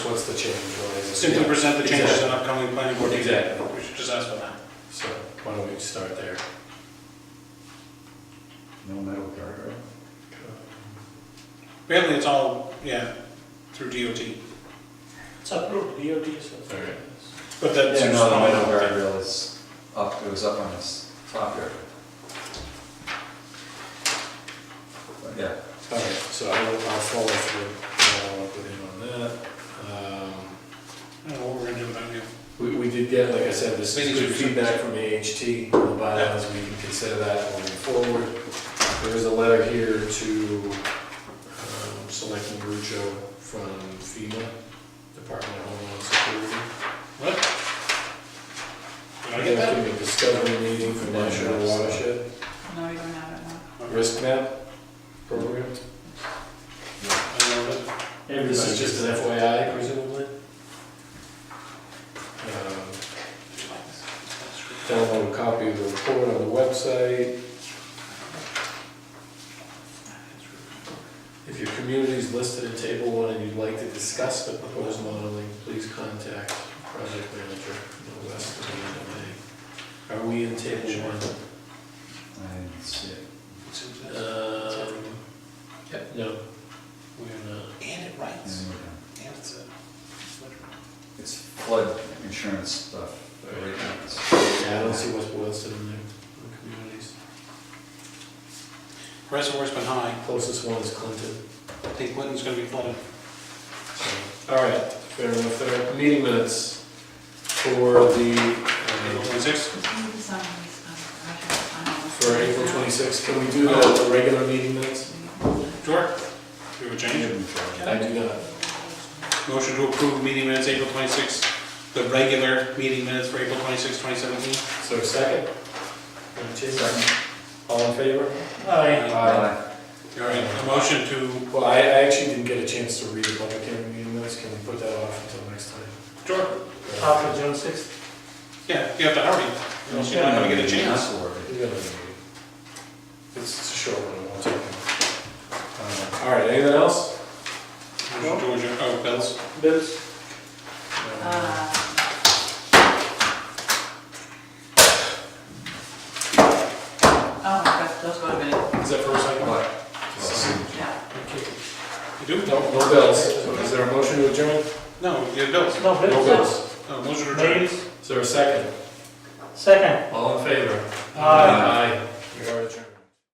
what's the change really? Is it- Simply present the changes in upcoming planning board meeting. Exactly. We should just ask for that. So why don't we start there? No metal guardrail? Apparently, it's all, yeah, through DOT, It's approved, DOT says. Alright. but that's. Yeah, no, the metal guardrail is up, it was up on this top area. But Yeah, All right, so I'll, I'll follow through, follow up with him on that. Um, I don't know what we're gonna do without you. We, we did get, like I said, this is good Basically, feedback from AHT, on the bylaws, we can consider that moving forward. There is a letter here to, um, Selectman Rucho from FEMA, Department of Homeland Security. What? Did I They're get that? giving a discovery meeting for National Watershed No, we don't have it now. Risk Map Program. I don't know that. This is just an FYI presumably. Um, Download a copy of the report on the website. If your community is listed in table one and you'd like to discuss the proposed modeling, please contact project manager, no less than the end of May. Are we in table one? I didn't see it. Seems that's- Um, yep, no, we're not. And it Yeah, writes, yeah. and it's a. It's flood insurance stuff. the rate limits. Yeah, I don't see West Boylston in there, in the communities. Reservoir's been high, Closest one is Clinton. I think Clinton's gonna be flooded. All right, fair enough, there. Meeting minutes for the, April uh, twenty-sixth, Can you sign these, um, I have- I don't know. for April 26th, can we do that with the regular meeting minutes? sure. Do a change. I do not. Motion to approve meeting minutes April twenty-sixth, the regular meeting minutes for April twenty-sixth, twenty seventeen. So second? And two. Second. All in favor? Aye. Aye. All right, a motion to, Well, I, I actually didn't get a chance to read the public hearing meeting minutes, can we put that off until next time? sure, After June sixth. yeah, you have to hurry, or else you're not gonna get a chance. That's the word. We got another meeting. It's it's a short one, I won't take it. Um, All right, anything else? Motion to adjourn, oh, bills. Bills. Uh, Oh, that- those would have been, Is that first item? What? yeah. Okay. You do? No, no bills, So is there a motion to adjourn? No, you have bills. No, No bills. bills. Uh, Motion to adjourn. Bills. Is there a second? Second. All in favor? Aye. Aye.